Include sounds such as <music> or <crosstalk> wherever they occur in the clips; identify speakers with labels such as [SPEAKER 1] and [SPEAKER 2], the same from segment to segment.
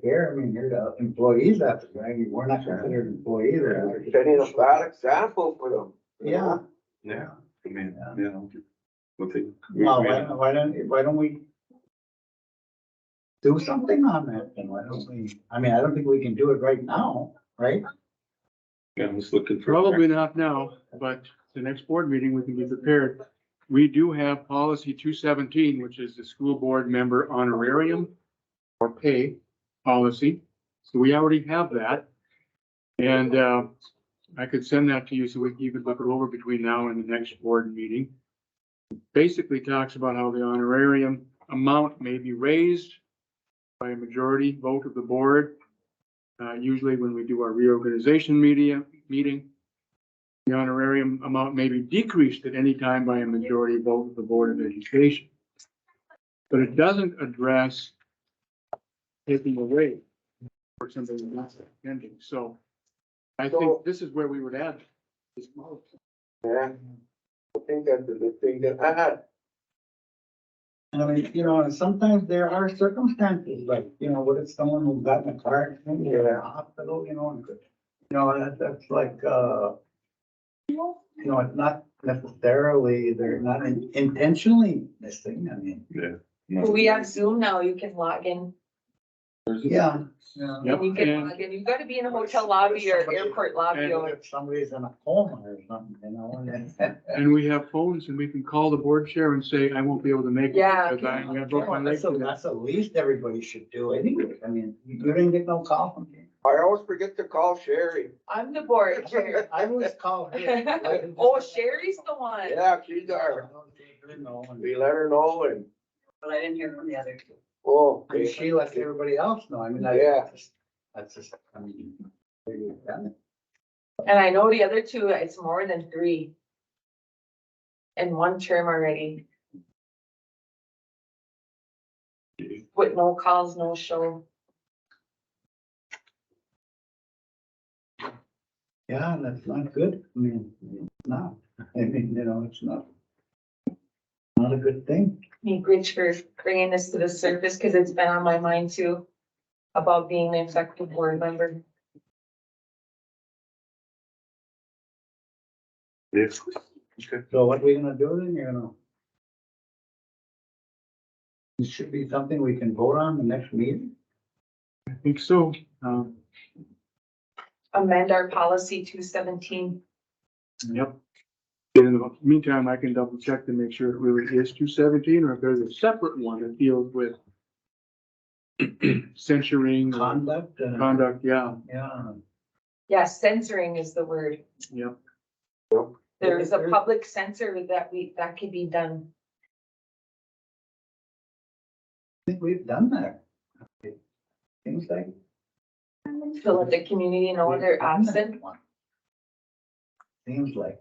[SPEAKER 1] care. I mean, you're the employees after, right? We're not considered employees. or-
[SPEAKER 2] Setting a bad example for them.
[SPEAKER 1] Yeah.
[SPEAKER 3] Yeah, I mean, uh, you know. We'll take.
[SPEAKER 1] Well, why don't, why don't, why don't we? Do something on that then. Why don't we? I mean, I don't think we can do it right now, right?
[SPEAKER 3] Yeah, I was looking for.
[SPEAKER 4] Probably not now, but the next board meeting, we can be prepared. We do have policy two seventeen, which is the school board member honorarium or pay policy. So we already have that. And, uh, I could send that to you so we can even look it over between now and the next board meeting. Basically talks about how the honorarium amount may be raised by a majority vote of the board. Uh, usually when we do our reorganization media, meeting, the honorarium amount may be decreased at any time by a majority vote of the Board of Education. But it doesn't address taking away for somebody who's not attending, so I
[SPEAKER 2] So-
[SPEAKER 4] think this is where we would add this policy.
[SPEAKER 2] Yeah. I think that's a good thing to add.
[SPEAKER 1] And I mean, you know, and sometimes there are circumstances, like, you know, what if someone who got in a car accident, or in a hospital, you know, and could, you know, that, that's like, uh, you know, it's not necessarily, they're not in- intentionally missing, I mean,
[SPEAKER 5] We have Zoom now, you can log in,
[SPEAKER 1] yeah. yeah.
[SPEAKER 4] Yep,
[SPEAKER 5] you can
[SPEAKER 4] and
[SPEAKER 5] log in, you gotta be in a hotel lobby or airport lobby
[SPEAKER 1] What
[SPEAKER 5] or.
[SPEAKER 1] If somebody's in a coma or something, you know, and then.
[SPEAKER 4] <laughs> And we have phones and we can call the board chair and say, I won't be able to make it.
[SPEAKER 5] Yeah,
[SPEAKER 4] because I- I broke my leg
[SPEAKER 1] That's the,
[SPEAKER 4] today."
[SPEAKER 1] that's the least everybody should do anyway, I mean, you didn't get no call from
[SPEAKER 5] <laughs>
[SPEAKER 1] me.
[SPEAKER 2] I always forget to call Sherry.
[SPEAKER 5] I'm the board chair.
[SPEAKER 1] <laughs> I always call her.
[SPEAKER 5] <laughs> Oh, Sherry's the one.
[SPEAKER 2] Yeah, she's our, we let her know and,
[SPEAKER 5] But I didn't hear from the others.
[SPEAKER 2] oh.
[SPEAKER 1] And she lets everybody else know, I mean, I.
[SPEAKER 2] Yeah.
[SPEAKER 1] That's just, I mean. you done it.
[SPEAKER 5] And I know the other two, it's more than three. In one term already. With no calls, no show.
[SPEAKER 1] Yeah, and that's not good, I mean, it's not, I mean, you know, it's not. Not a good thing,
[SPEAKER 5] Thank Rich for bringing this to the surface, because it's been on my mind too, about being an effective board member.
[SPEAKER 3] Yes.
[SPEAKER 1] so what we gonna do then, you're gonna? It should be something we can vote on the next meeting,
[SPEAKER 4] I think so. Um,
[SPEAKER 5] Amend our policy two seventeen.
[SPEAKER 4] Yep. In the meantime, I can double check to make sure it really is two seventeen or if there's a separate one that deals with <clears throat> censuring or
[SPEAKER 1] conduct, uh,
[SPEAKER 4] Mm-hmm. conduct, yeah,
[SPEAKER 1] yeah.
[SPEAKER 5] Yeah, censoring is the word.
[SPEAKER 4] yep.
[SPEAKER 5] There is a public censor that we, that could be done.
[SPEAKER 1] I think we've done that. Things like.
[SPEAKER 5] To let the community know they're <laughs> absent.
[SPEAKER 1] Seems like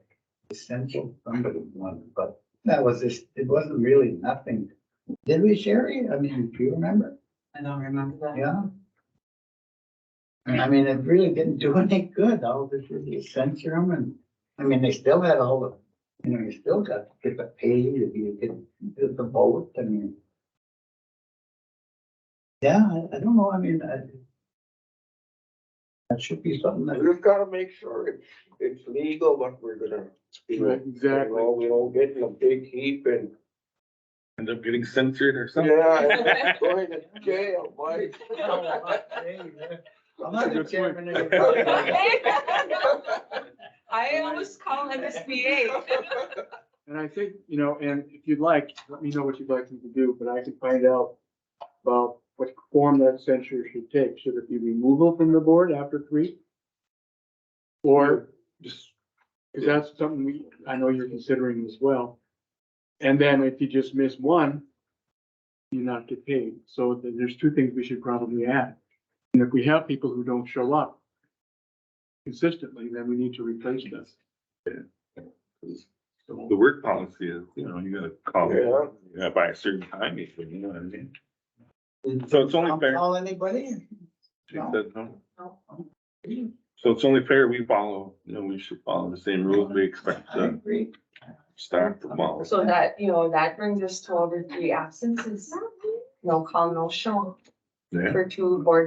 [SPEAKER 1] essential somebody wanted, but that was just, it wasn't really nothing. Did we, Sherry? I mean, do you remember?
[SPEAKER 5] I don't remember that.
[SPEAKER 1] Yeah. And I mean, it really didn't do <laughs> any good. All this is censor them and, I mean, they still had all the, you know, you still got to get the pay, you get get the vote, I mean. Yeah, I- I don't know, I mean, I. That should be something
[SPEAKER 2] <laughs>
[SPEAKER 1] that.
[SPEAKER 2] We just gotta make sure it's, it's legal what we're gonna. do.
[SPEAKER 4] Right, exactly.
[SPEAKER 2] You know, We don't get in a big heap and,
[SPEAKER 3] End up getting censored or something.
[SPEAKER 2] yeah, going to jail, buddy. <laughs>
[SPEAKER 1] I'm not the
[SPEAKER 4] Good point.
[SPEAKER 1] chairman of the.
[SPEAKER 5] I always call <laughs> MSBA.
[SPEAKER 4] And I think, you know, and if you'd like, let me know what you'd like me to do, but I can find out about what form that censure should take. Should it be removal from the board after three? Or just, because that's something we, I know you're considering as well. And then if you just miss one, you not get paid. So th- there's two things we should probably add. And if we have people who don't show up consistently, then we need to replace them.
[SPEAKER 3] The work policy is, you know, you gotta call it,
[SPEAKER 2] Yeah.
[SPEAKER 3] yeah, by a certain time, if you know what I mean. So it's only
[SPEAKER 1] I'll
[SPEAKER 3] fair.
[SPEAKER 1] Call anybody?
[SPEAKER 3] She
[SPEAKER 1] No.
[SPEAKER 3] said no.
[SPEAKER 5] No.
[SPEAKER 3] So it's only fair we follow, you know, we should follow the same rules we expect uh,
[SPEAKER 1] I
[SPEAKER 3] the
[SPEAKER 1] agree.
[SPEAKER 3] staff to follow.
[SPEAKER 5] So that, you know, that brings us to over three absences. No call, no show
[SPEAKER 3] Yeah.
[SPEAKER 5] for two board